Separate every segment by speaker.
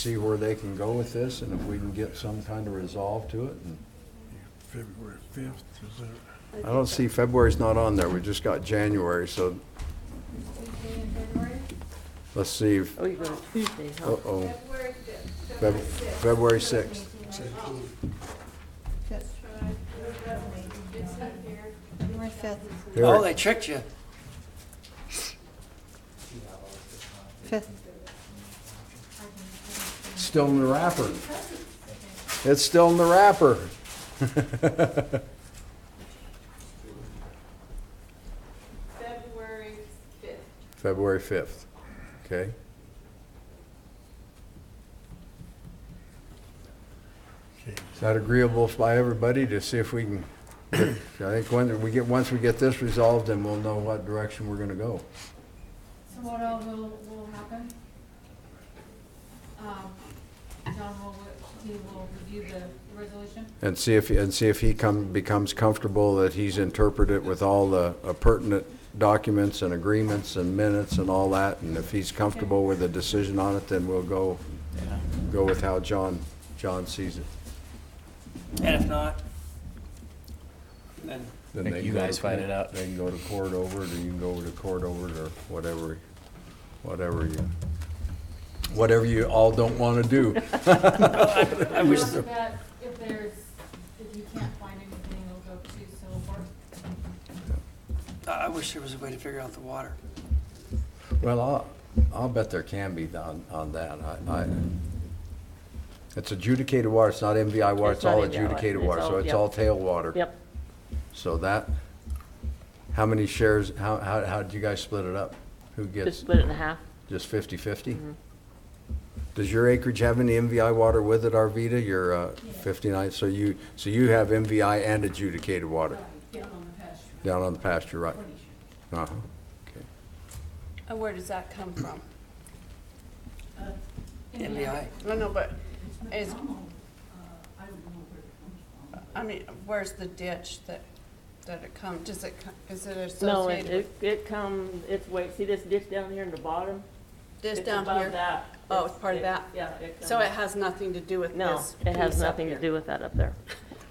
Speaker 1: see where they can go with this and if we can get some kind of resolve to it. and-
Speaker 2: February 5th, is that,
Speaker 1: I don't see, February's not on there, we just got January, so
Speaker 3: Tuesday in February?
Speaker 1: let's see, if-
Speaker 4: Oh, you're going to Tuesday, huh?
Speaker 1: uh-oh,
Speaker 3: February fifth.
Speaker 1: Feb- February sixth.
Speaker 3: February fifth,
Speaker 5: Oh,
Speaker 1: Here,
Speaker 5: they tricked you.
Speaker 3: fifth.
Speaker 1: it's still in the wrapper. It's still in the wrapper.
Speaker 3: February fifth.
Speaker 1: February fifth, okay?
Speaker 2: okay.
Speaker 1: Is that agreeable by everybody to see if we can, I think when we get, once we get this resolved, then we'll know what direction we're gonna go.
Speaker 3: So what all will, will happen? Um, John will, he will review the resolution?
Speaker 1: And see if, and see if he come, becomes comfortable that he's interpreted it with all the uh, pertinent documents and agreements and minutes and all that. And if he's comfortable with a decision on it, then we'll go, go with how John, John sees it.
Speaker 5: And if not, then
Speaker 1: Then
Speaker 6: Think
Speaker 1: they
Speaker 6: you
Speaker 1: can go
Speaker 6: guys
Speaker 1: to-
Speaker 6: find it out.
Speaker 1: They can go to court over it, or you can go over to court over it, or whatever, whatever you, whatever you all don't want to do.
Speaker 3: I wish. That if there's, if you can't find anything, it'll go to civil court.
Speaker 5: I I wish there was a way to figure out the water.
Speaker 1: Well, I'll, I'll bet there can be on, on that. I, I, it's adjudicated water, it's not MVI water,
Speaker 4: It's
Speaker 1: it's all
Speaker 4: not MVI water.
Speaker 1: adjudicated
Speaker 4: It's
Speaker 1: water, so
Speaker 4: all-
Speaker 1: it's
Speaker 4: yep.
Speaker 1: all tailwater.
Speaker 4: Yep.
Speaker 1: So that, how many shares, how, how, how did you guys split it up? Who
Speaker 4: Just
Speaker 1: gets,
Speaker 4: split it in half.
Speaker 1: just fifty-fifty? Does your acreage have any MVI water with it, Arvita? Your, uh, fifty-nine, so you, so you have MVI and adjudicated water? Down on the pasture. Down on the pasture, right. Uh-huh, okay.
Speaker 7: And Uh, where does that come from?
Speaker 5: MBI.
Speaker 7: No, no, but is. I mean, where's the ditch that, that it come, does it, co- is it
Speaker 4: No, it,
Speaker 7: associated
Speaker 4: it,
Speaker 7: with
Speaker 4: it comes, it's, wait, see this ditch down here in the bottom?
Speaker 7: this
Speaker 4: It's
Speaker 7: down
Speaker 4: above
Speaker 7: here?
Speaker 4: that.
Speaker 7: Oh, it's part of that?
Speaker 4: Yeah. it
Speaker 7: So it
Speaker 4: comes-
Speaker 7: has nothing to do with
Speaker 4: No,
Speaker 7: this?
Speaker 4: it has
Speaker 7: piece up
Speaker 4: nothing to
Speaker 7: here?
Speaker 4: do with that up there.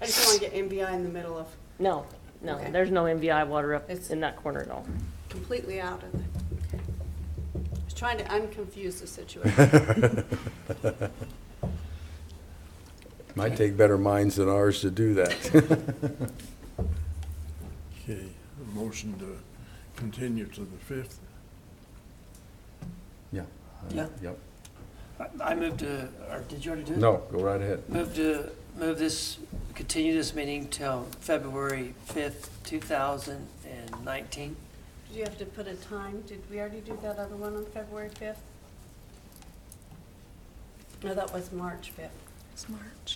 Speaker 7: I just want to get MBI in the middle of,
Speaker 4: No, no,
Speaker 7: Okay.
Speaker 4: there's no MVI water up
Speaker 7: It's-
Speaker 4: in that corner at all.
Speaker 7: completely out of it. Okay. I was trying to unconfuse the situation.
Speaker 1: Uh-huh, Might take better minds than ours to do that.
Speaker 2: Okay, a motion to continue to the 5th.
Speaker 1: Yeah.
Speaker 5: Yeah.
Speaker 1: Yep.
Speaker 5: I- I moved to, or did you already do it?
Speaker 1: No, go right ahead.
Speaker 5: Move to, move this, continue this meeting till February 5th, 2019.
Speaker 7: Do you have to put a time? Did we already do that other one on February 5th? No, that was March 5th.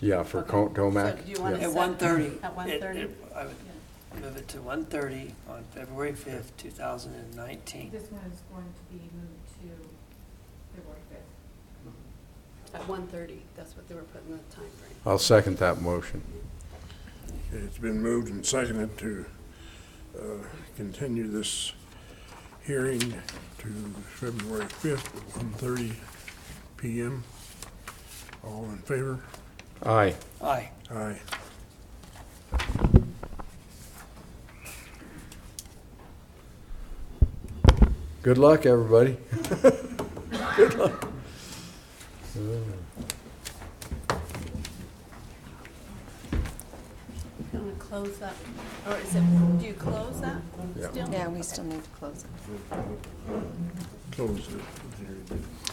Speaker 1: Yeah, for
Speaker 7: Okay.
Speaker 1: Co-
Speaker 7: So
Speaker 1: Tomac.
Speaker 7: do you want
Speaker 1: yeah.
Speaker 5: At 1:30.
Speaker 7: At
Speaker 5: It-
Speaker 7: 1:30.
Speaker 5: it- I would move it to 1:30 on February 5th, 2019.
Speaker 3: This one is going to be moved to February fifth.
Speaker 7: At 1:30, that's what they were putting the time frame.
Speaker 1: I'll second that motion.
Speaker 2: Okay, it's been moved and seconded to uh, continue this hearing to February 5th at 1:30 PM. All in favor?
Speaker 1: Aye.
Speaker 5: Aye.
Speaker 2: Aye.
Speaker 1: Good luck, everybody.
Speaker 7: You want to close that, or is it, do you close that
Speaker 1: Yeah.
Speaker 7: still?
Speaker 8: Yeah, we still need to close it.
Speaker 2: Close it.